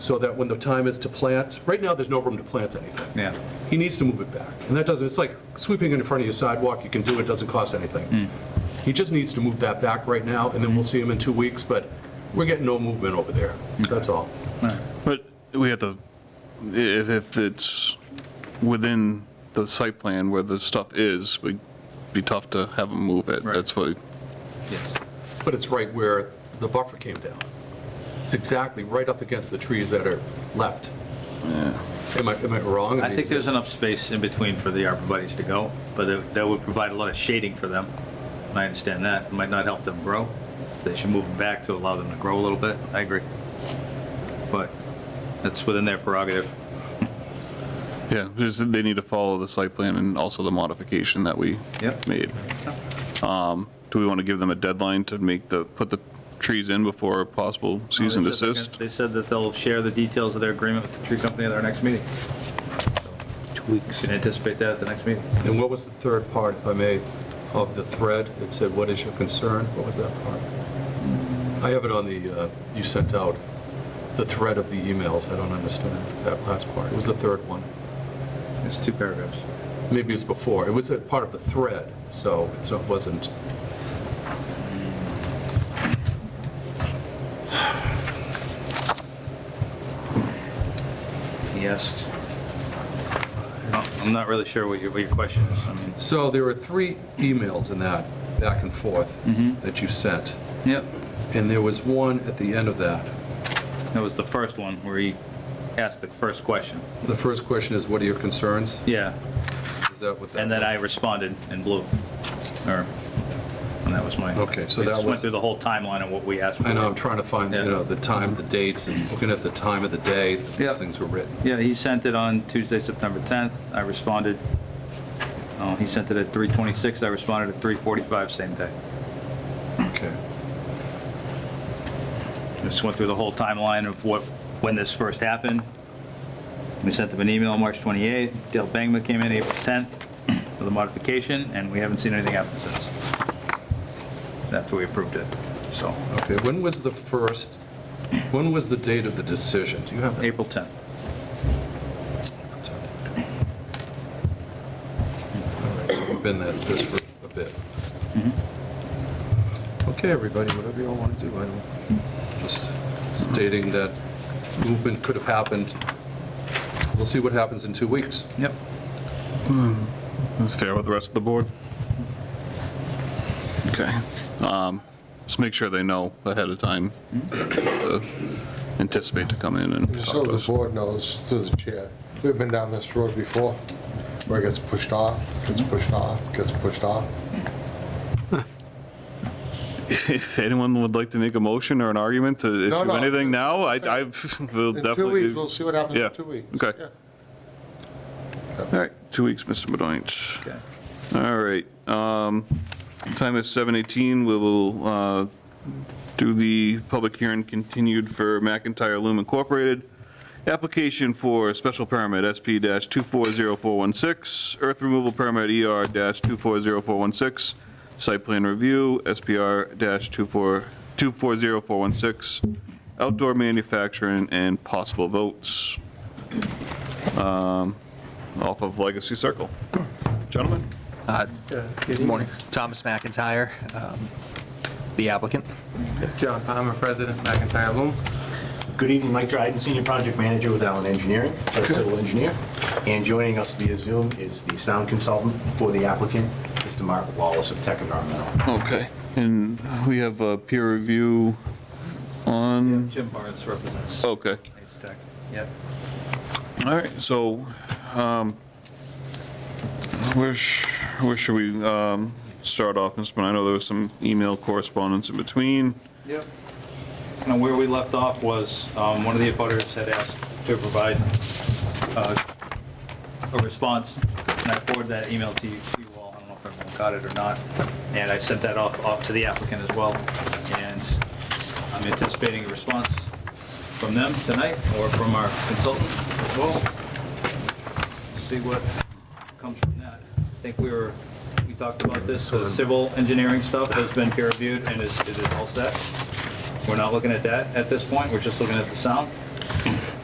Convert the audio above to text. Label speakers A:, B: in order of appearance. A: so that when the time is to plant, right now, there's no room to plant anything.
B: Yeah.
A: He needs to move it back. And that doesn't, it's like sweeping in front of your sidewalk, you can do it, doesn't cost anything.
B: Hmm.
A: He just needs to move that back right now, and then we'll see him in two weeks, but we're getting no movement over there,
B: Hmm.
A: that's all.
C: But we have to, if, if it's within the site plan where the stuff is, it'd be tough to have them move it.
B: Right.
C: That's what,
B: Yes.
A: But it's right where the buffer came down. It's exactly right up against the trees that are left. Am I, am I wrong?
B: I think there's enough space in between for the arborvitae's to go, but that- that would provide a lot of shading for them. And I understand that. It might not help them grow. So They should move them back to allow them to grow a little bit. I agree. But that's within their prerogative.
C: yeah, just that they need to follow the site plan and also the modification that we
B: Yep.
C: made. Um, Do we want to give them a deadline to make the, put the trees in before a possible cease and
B: They said they're
C: desist?
B: gonna- They said that they'll share the details of their agreement with the tree company at our next meeting. Two weeks. Can anticipate that at the next meeting.
A: And what was the third part, if I may, of the thread? It said, what is your concern? What was that part? I have it on the, uh, you sent out, the thread of the emails. I don't understand that last part. It was the third one.
B: It's two paragraphs.
A: Maybe it was before. It was a part of the thread, so it's not- it wasn't,
B: Yes. I'm not really sure what your, what your question is. I mean,
A: so there were three emails in that, back and forth,
B: Mhm.
A: that you sent.
B: Yep,
A: And there was one at the end of that.
B: that was the first one where he asked the first question.
A: The first question is, what are your concerns?
B: Yeah,
A: Is that what that?
B: and then I responded in blue, or, and that was my.
A: Okay, so
B: We
A: that
B: just
A: was-
B: went through the whole timeline of what we asked for.
A: I know, I'm trying to find, you know, the time, the dates, and looking at the time of the day that
B: Yeah.
A: these things were written.
B: Yeah, he sent it on Tuesday, September 10th. I responded. Oh, he sent it at 3:26. I responded at 3:45 same day.
A: Okay.
B: Just went through the whole timeline of what, when this first happened. We sent them an email March 28th. Dale Bangma came in April 10th with a modification, and we haven't seen anything happen since. After we approved it, so,
A: Okay, when was the first, when was the date of the decision? Do you have that?
B: April 10th.
A: All right, so We've been at this for a bit. Okay, everybody, whatever you all want to do, I don't, just stating that movement could have happened. We'll see what happens in two weeks.
B: Yep.
C: That's fair with the rest of the board? Okay. Um, Just make sure they know ahead of time, to anticipate to come in and
D: So
C: talk to
D: the
C: us.
D: board knows, through the chair, we've been down this road before, where it gets pushed off, gets pushed off, gets pushed off.
C: If anyone would like to make a motion or an argument to
D: No,
C: issue
D: no.
C: anything now, I, I will
D: In two weeks,
C: definitely.
D: we'll
C: All
D: see what happens
C: yeah,
D: in two weeks.
C: okay.
D: Yeah.
C: right, two weeks, Mr. Benoit.
B: Okay.
C: All right, um, time is 7:18, we will uh, do the public hearing continued for McIntyre Loom Incorporated. Application for special permit SP-240416, earth removal permit E ER-240416, site plan review SPR-240416, outdoor manufacturing and possible votes um, off of Legacy Circle. Gentlemen?
E: Uh, Good morning. Thomas McIntyre, um, the applicant.
F: John Palmer, President, McIntyre Loom.
G: Good evening, Mike Dryden, Senior Project Manager with Allen Engineering, Site Civil Engineer. And joining us via Zoom is the sound consultant for the applicant, Mr. Mark Wallace of Tech Environmental.
C: Okay, and we have a peer review on,
B: Jim Barnes represents
C: okay,
B: Ace Tech. Yep.
C: all right, so, um, where, sh- where should we, um, start off, Mr. Benoit? I know there was some email correspondence in between.
B: Yep. And where we left off was, um, one of the abutters had asked to provide uh, a response, and I forwarded that email to you to you all, I don't know if everyone got it or not, and I sent that off, off to the applicant as well, and I'm anticipating a response from them tonight, or from our consultant as well. See what comes from that. I think we were, we talked about this, the civil engineering stuff has been peer reviewed and is, it is all set. We're not looking at that at this point, we're just looking at the sound.